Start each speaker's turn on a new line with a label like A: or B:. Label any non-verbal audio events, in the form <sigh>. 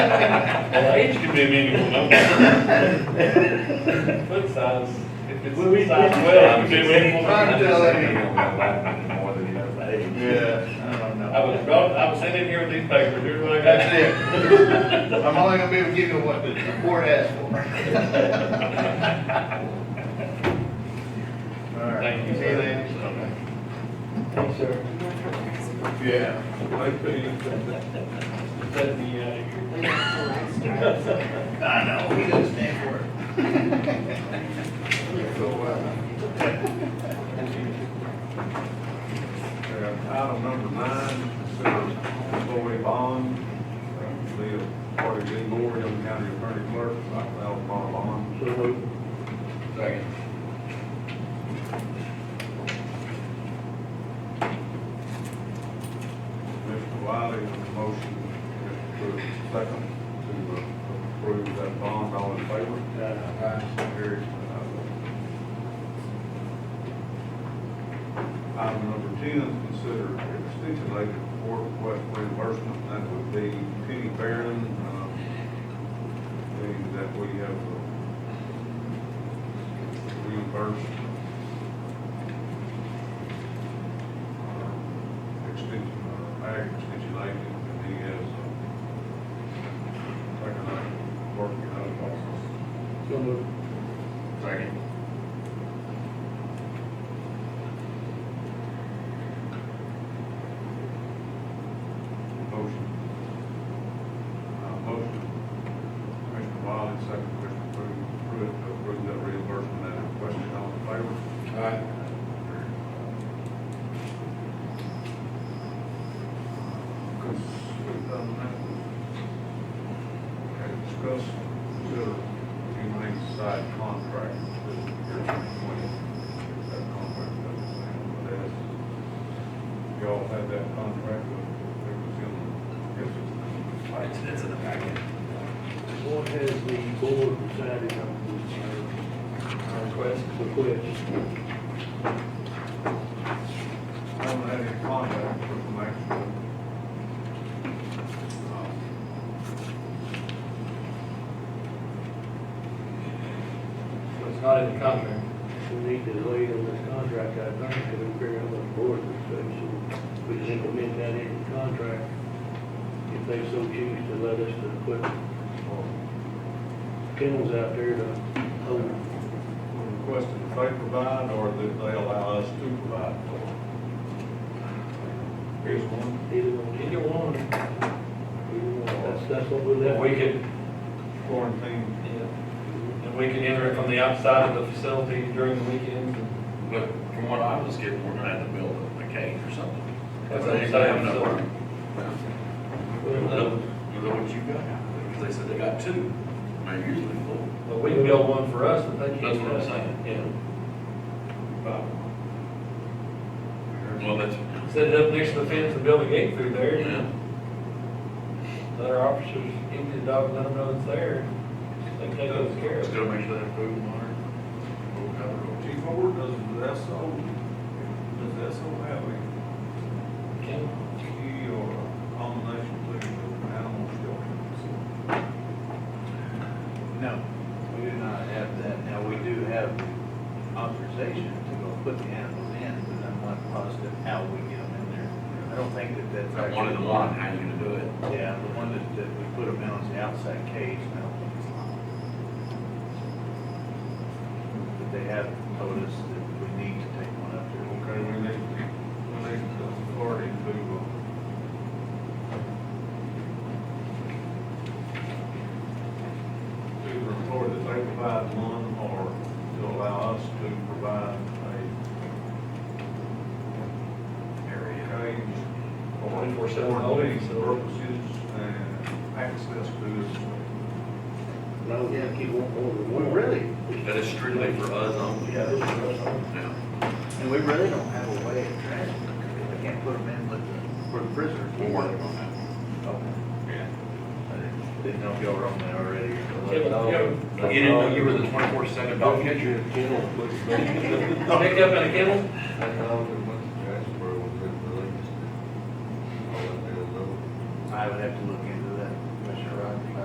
A: Well, age could be a meaningful number. Foot size, if it's
B: We- we-
A: size well, it could be a meaningful
B: I'm
A: number.
B: telling you.
C: More than he knows the age.
B: Yeah, I don't know.
A: I was brought, I was sent in here with these papers, here's what I got.
B: That's it. <laughs> I'm only gonna be able to give you what the report asked for. <laughs> All right.
A: Thank you, sir.
B: See then.
A: Thanks, sir.
B: Yeah.
A: Said the, uh,
B: I know, he doesn't stand for it. So, uh,
C: Uh, Item number nine, consider employee bond, uh, the party being board, Young County Attorney Clerk, five thousand dollar bond.
B: Second.
C: Mr. Wiley, motion, Mr. second, to uh, approve that bond, all in favor?
B: Aye.
C: So carried. Item number ten, consider stipulated court request reimbursement, that would be Penny Barron, um, being that we have uh, reimbursed our extension, our ag extension agent, and he has uh, taken up working out of office.
B: Second.
C: Motion. Uh, motion, Commissioner Wiley, second, Commissioner Pruitt, Pruitt, to approve that reimbursement, that request, all in favor?
B: Aye.
C: Okay, discuss, consider humane side contract, this is year twenty twenty, that contract doesn't sound bad. Y'all had that contract, but it was in, I guess it's.
D: It's, it's in the packet.
E: What has the board decided on
D: Our request.
E: this request?
C: I haven't had any contact with them actually. Um,
D: So it's not in the contract.
E: We need to lay on this contract, I think, to figure out what the board expects, and we can implement that in the contract if they so choose to let us to put kennels out there to hold
C: We requested that they provide or that they allow us to provide for. them. Here's one.
E: either one.
D: Either one.
E: Either one. That's, that's what we left.
D: We could,
C: Quarantine.
E: Mm-hmm.
D: and we can enter it from the outside of the facility during the weekends.
F: But from what I was getting, we're gonna have to build a cage or something.
D: That's
F: They ain't gonna have enough room.
D: Well,
F: You know what you got? Because they said they got two. They're usually full.
D: But we can build one for us, but they can't.
F: That's what I'm saying.
D: Yeah.
F: Well, that's,
D: Set it up next to the fence and build a gate through there.
F: yeah.
D: Let our officers empty the dog, let them know it's there. They take those care of.
F: Just gotta make sure they have food and water. We'll cover it.
C: Chief Ford, does the SO, does the SO have a
D: Can-
C: key or a combination to the animal shelter?
B: No, we do not have that. Now, we do have authorization to go put the animals in, but I'm not positive how we get them in there. I don't think that that's.
F: I wanted to
B: actually-
F: learn how you gonna do it.
B: Yeah, the one that, that we put them in is the outside cage, and I don't think it's locked. But they have told us that we need to take one up there.
C: Okay, we need, we need the authority to, uh, to report that they provide one or to allow us to provide a area cage or
D: 24/7 holding
C: for
D: facility.
C: purposes and access to this.
E: I don't think you want more than one.
F: That is strictly for us um, only.
E: Yeah, this is us.
F: Yeah.
B: And we really don't have a way of tracking them. We can't put them in with the, for the prisoners.
F: We're working on that.
B: Okay. Yeah. I didn't- didn't know if y'all were on that already.
F: You didn't know you were the twenty-four seven dog catcher?
D: Picked up in a kennel?
B: I would have to look into